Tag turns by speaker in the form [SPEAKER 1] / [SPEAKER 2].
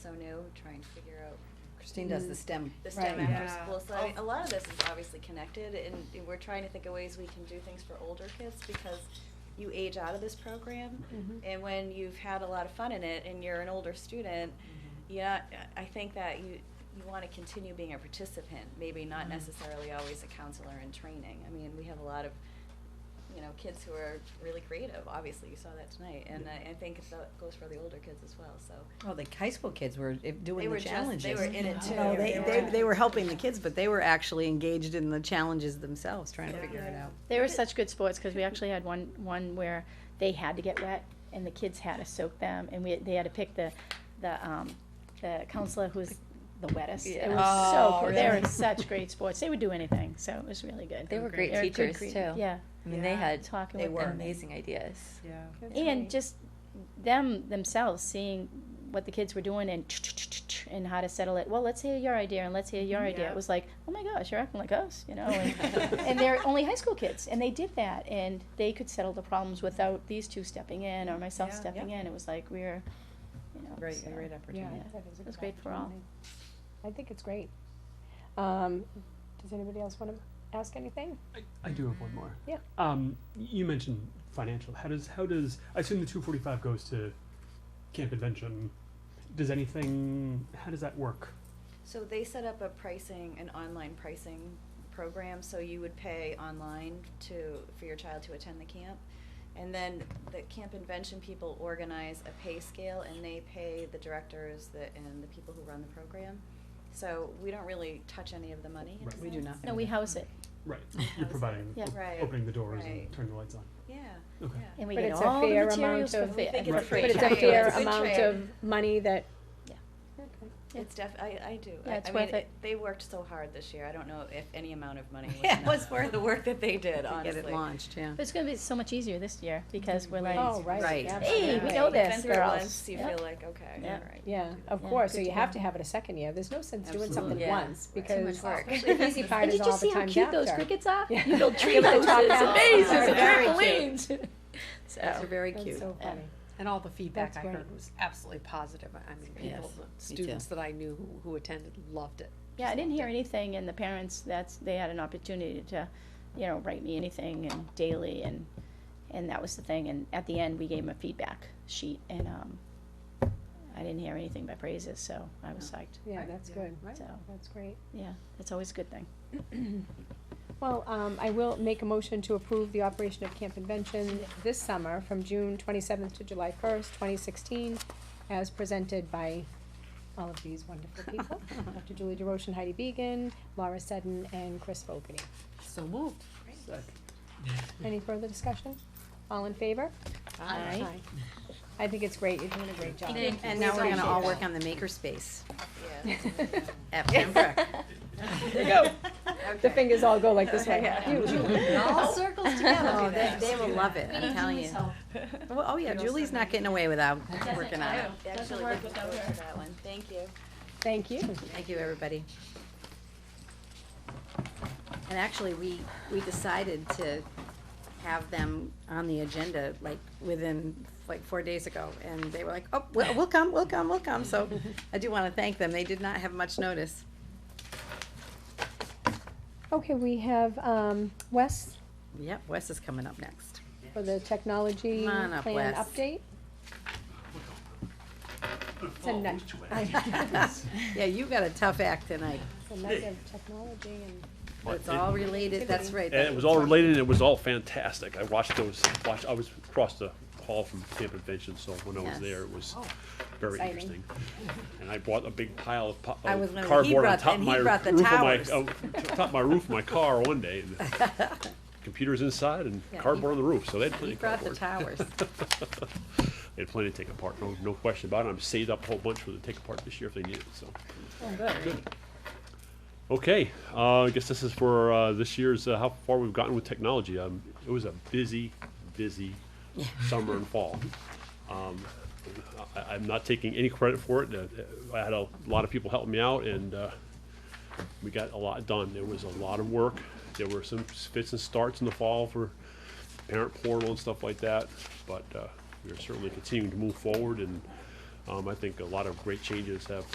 [SPEAKER 1] so new, trying to figure out, Christine does
[SPEAKER 2] Mm.
[SPEAKER 1] the STEM, the STEM
[SPEAKER 3] Right.
[SPEAKER 1] after
[SPEAKER 3] Yeah.
[SPEAKER 1] school, so I mean, a lot of this is obviously connected, and we're trying to think of ways we can do things for older kids, because you age out of this program,
[SPEAKER 3] Mhm.
[SPEAKER 1] and when you've had a lot of fun in it, and you're an older student, yeah, I I think that you, you wanna continue being a participant, maybe not
[SPEAKER 3] Mhm.
[SPEAKER 1] necessarily always a counselor in training, I mean, we have a lot of you know, kids who are really creative, obviously, you saw that tonight, and I, I think that goes for the older kids as well, so.
[SPEAKER 2] Well, Oh, the high school kids were
[SPEAKER 1] They
[SPEAKER 2] eh, doing
[SPEAKER 1] were
[SPEAKER 2] the
[SPEAKER 1] just- they
[SPEAKER 2] challenges.
[SPEAKER 1] were in it too.
[SPEAKER 3] They
[SPEAKER 2] No, Oh, they,
[SPEAKER 3] were
[SPEAKER 2] they,
[SPEAKER 3] in
[SPEAKER 2] they
[SPEAKER 3] it.
[SPEAKER 2] were helping the kids, but they were actually engaged in the challenges themselves, trying to
[SPEAKER 1] Yeah.
[SPEAKER 2] figure it out.
[SPEAKER 4] They were such good sports because we actually had one one where they had to get wet and the kids had to soak them and we they had to pick the the um, the counselor who was the wettest. It
[SPEAKER 5] Yeah.
[SPEAKER 4] was
[SPEAKER 3] Oh,
[SPEAKER 4] so cool. They
[SPEAKER 3] really?
[SPEAKER 4] were such great sports. They would do anything, so it was really good.
[SPEAKER 5] They were great
[SPEAKER 4] They're good
[SPEAKER 5] teachers,
[SPEAKER 4] crea-
[SPEAKER 5] too.
[SPEAKER 4] Yeah,
[SPEAKER 5] I mean, they
[SPEAKER 3] Yeah.
[SPEAKER 5] had
[SPEAKER 4] talking
[SPEAKER 5] they
[SPEAKER 4] with
[SPEAKER 5] were
[SPEAKER 4] them.
[SPEAKER 5] amazing ideas.
[SPEAKER 3] Yeah.
[SPEAKER 4] and just them themselves seeing what the kids were doing and and how to settle it. Well, let's hear your idea and let's hear your idea.
[SPEAKER 3] Yeah.
[SPEAKER 4] It was like, oh my gosh, you're acting like us, you know. And, and they're only high school kids, and they did that, and they could settle the problems without these two stepping in or myself
[SPEAKER 3] Yeah.
[SPEAKER 4] stepping in. It was like we were, you know,
[SPEAKER 2] Great,
[SPEAKER 4] so-
[SPEAKER 2] great
[SPEAKER 3] Yeah.
[SPEAKER 2] opportunity.
[SPEAKER 4] It was great for all.
[SPEAKER 6] I think it's great. Um, does anybody else want to ask anything?
[SPEAKER 7] I, I do have one more.
[SPEAKER 6] Yeah.
[SPEAKER 7] Um, y- you mentioned financial. How does how does I assume the two forty five goes to Camp Invention? Does anything? How does that work?
[SPEAKER 1] So they set up a pricing, an online pricing program, so you would pay online to, for your child to attend the camp. And then the Camp Invention people organize a pay scale and they pay the directors that, and the people who run the program. So we don't really touch any of the money in a
[SPEAKER 7] Right.
[SPEAKER 2] We do
[SPEAKER 1] sense.
[SPEAKER 2] nothing.
[SPEAKER 4] No, we house it,
[SPEAKER 7] Right. You're providing
[SPEAKER 4] Yeah.
[SPEAKER 7] op-
[SPEAKER 1] Right.
[SPEAKER 7] opening the doors
[SPEAKER 1] Right.
[SPEAKER 7] and turning the lights on.
[SPEAKER 1] Yeah,
[SPEAKER 7] Okay.
[SPEAKER 1] yeah.
[SPEAKER 4] and we
[SPEAKER 6] But
[SPEAKER 4] get
[SPEAKER 6] it's a
[SPEAKER 4] all the
[SPEAKER 6] fair
[SPEAKER 4] materials for
[SPEAKER 6] amount of-
[SPEAKER 4] fair.
[SPEAKER 1] I think it's a
[SPEAKER 7] Right.
[SPEAKER 1] fair
[SPEAKER 6] But it's a
[SPEAKER 1] trade.
[SPEAKER 6] fair
[SPEAKER 1] It's a good
[SPEAKER 6] amount
[SPEAKER 1] trade.
[SPEAKER 6] of money that.
[SPEAKER 4] Yeah.
[SPEAKER 1] It's def, I, I do.
[SPEAKER 4] Yeah,
[SPEAKER 1] I-
[SPEAKER 4] it's
[SPEAKER 1] I
[SPEAKER 4] worth
[SPEAKER 1] mean,
[SPEAKER 4] it.
[SPEAKER 1] They worked so hard this year, I don't know if any amount of money was
[SPEAKER 2] Yeah, it was
[SPEAKER 1] enough
[SPEAKER 2] worth
[SPEAKER 1] for the work that they did,
[SPEAKER 2] To
[SPEAKER 1] honestly.
[SPEAKER 2] get it launched, yeah.
[SPEAKER 4] But it's going to be so much easier this year because we're like,
[SPEAKER 6] Oh, right.
[SPEAKER 2] Right.
[SPEAKER 4] Hey, we
[SPEAKER 6] absolutely.
[SPEAKER 4] know
[SPEAKER 1] You've been
[SPEAKER 4] this,
[SPEAKER 1] through it
[SPEAKER 4] girls.
[SPEAKER 1] once, You
[SPEAKER 4] Yeah.
[SPEAKER 1] feel like, okay,
[SPEAKER 4] Yeah.
[SPEAKER 1] all right.
[SPEAKER 6] Yeah, of
[SPEAKER 4] Yeah,
[SPEAKER 6] course, so
[SPEAKER 4] good
[SPEAKER 6] you
[SPEAKER 4] to
[SPEAKER 6] have
[SPEAKER 4] know.
[SPEAKER 6] to have it a second year, there's no sense doing something
[SPEAKER 5] Absolutely. Yeah.
[SPEAKER 6] once,
[SPEAKER 1] Right. Too much
[SPEAKER 6] because,
[SPEAKER 1] work.
[SPEAKER 6] especially the easy part
[SPEAKER 4] And
[SPEAKER 6] is
[SPEAKER 4] did you
[SPEAKER 6] all
[SPEAKER 4] see
[SPEAKER 6] the
[SPEAKER 4] how
[SPEAKER 6] times
[SPEAKER 4] cute those
[SPEAKER 6] after.
[SPEAKER 4] crickets are?
[SPEAKER 6] Yeah.
[SPEAKER 4] You build tree
[SPEAKER 6] Look at the
[SPEAKER 4] houses
[SPEAKER 6] top
[SPEAKER 4] and
[SPEAKER 6] half.
[SPEAKER 4] mazes and
[SPEAKER 2] Very cute.
[SPEAKER 4] trampolines.
[SPEAKER 2] Those are
[SPEAKER 1] Oh.
[SPEAKER 4] So,
[SPEAKER 2] very
[SPEAKER 6] That's
[SPEAKER 2] cute.
[SPEAKER 6] so
[SPEAKER 4] Yeah.
[SPEAKER 6] funny.
[SPEAKER 8] And all the feedback
[SPEAKER 6] That's
[SPEAKER 8] I
[SPEAKER 6] great.
[SPEAKER 8] heard was absolutely positive. I mean, people,
[SPEAKER 5] Yes.
[SPEAKER 8] the students that I knew who, who attended loved it.
[SPEAKER 4] yeah, I
[SPEAKER 8] Just
[SPEAKER 4] didn't
[SPEAKER 8] loved
[SPEAKER 4] hear
[SPEAKER 8] it.
[SPEAKER 4] anything and the parents, that's, they had an opportunity to, you know, write me anything and daily and, and that was the thing. And at the end, we gave them a feedback sheet and, um, I didn't hear anything but praises, so I was psyched.
[SPEAKER 6] Yeah,
[SPEAKER 8] Right.
[SPEAKER 6] that's
[SPEAKER 8] Yeah.
[SPEAKER 6] good,
[SPEAKER 8] Right.
[SPEAKER 4] So,
[SPEAKER 6] that's great.
[SPEAKER 4] yeah, that's always a good thing.
[SPEAKER 6] Well, um, I will make a motion to approve the operation of Camp Invention this summer from June twenty-seventh to July first, twenty sixteen, as presented by all of these wonderful people, Dr. Julie DeRoche and Heidi Beegan, Laura Seddon, and Chris Fogarty.
[SPEAKER 8] So moved.
[SPEAKER 6] Any further discussion? All in favor?
[SPEAKER 4] Aye.
[SPEAKER 6] Aye. I think it's great, you're doing a great job.
[SPEAKER 2] And now we're gonna all work on the makerspace
[SPEAKER 1] Yeah.
[SPEAKER 2] at Pembroke.
[SPEAKER 6] There you go. The fingers all go like this way.
[SPEAKER 2] All circles together.
[SPEAKER 6] Oh,
[SPEAKER 2] they, they will love it, I'm telling you. Well, Oh, yeah, Julie's not getting away without working on it.
[SPEAKER 1] Actually, looking forward to that one, thank you.
[SPEAKER 6] Thank you.
[SPEAKER 2] Thank you, everybody. And actually, we, we decided to have them on the agenda, like, within, like, four days ago, and they were like, oh, we'll, we'll come, we'll come, we'll come, so I do wanna thank them, they did not have much notice.
[SPEAKER 6] Okay, we have, um, Wes
[SPEAKER 2] Yep, Wes is coming up next.
[SPEAKER 6] for the technology
[SPEAKER 2] Come on up,
[SPEAKER 6] plan
[SPEAKER 2] Wes.
[SPEAKER 6] update. It's a nut,
[SPEAKER 2] Yeah, you got a tough act tonight,
[SPEAKER 6] it's a nut of technology and.
[SPEAKER 2] but it's all related, that's right.
[SPEAKER 9] And it was all related, and it was all fantastic. I watched those, watched, I was across the hall from Camp Invention, so when I was
[SPEAKER 2] Yes. Oh,
[SPEAKER 9] there, it was very
[SPEAKER 6] Exciting.
[SPEAKER 9] interesting. And I bought a big pile of po-
[SPEAKER 2] I was
[SPEAKER 9] of
[SPEAKER 2] gonna- he
[SPEAKER 9] cardboard on
[SPEAKER 2] brought-
[SPEAKER 9] top
[SPEAKER 2] and
[SPEAKER 9] of
[SPEAKER 2] he
[SPEAKER 9] my
[SPEAKER 2] brought
[SPEAKER 9] roof
[SPEAKER 2] the
[SPEAKER 9] of my,
[SPEAKER 2] towers.
[SPEAKER 9] oh, top of my roof of my car one day. and Computers inside and
[SPEAKER 2] Yeah, he-
[SPEAKER 9] cardboard on the roof, so they had plenty
[SPEAKER 2] He
[SPEAKER 9] of
[SPEAKER 2] brought the
[SPEAKER 9] cardboard.
[SPEAKER 2] towers.
[SPEAKER 9] They had plenty to take apart, no, no question about it. I'm saved up a whole bunch for the take apart this year if they need it, so. Okay, uh, I guess this is for uh, this year's uh, how far we've gotten with technology. Um, it was a busy, busy summer and fall. Um, I, I'm not taking any credit for it. Uh, I had a lot of people helping me out, and uh, we got a lot done. There was a lot of work. There were some fits and starts in the fall for parent portal and stuff like that, but uh, we are certainly continuing to move forward and Um, I think a lot of great changes have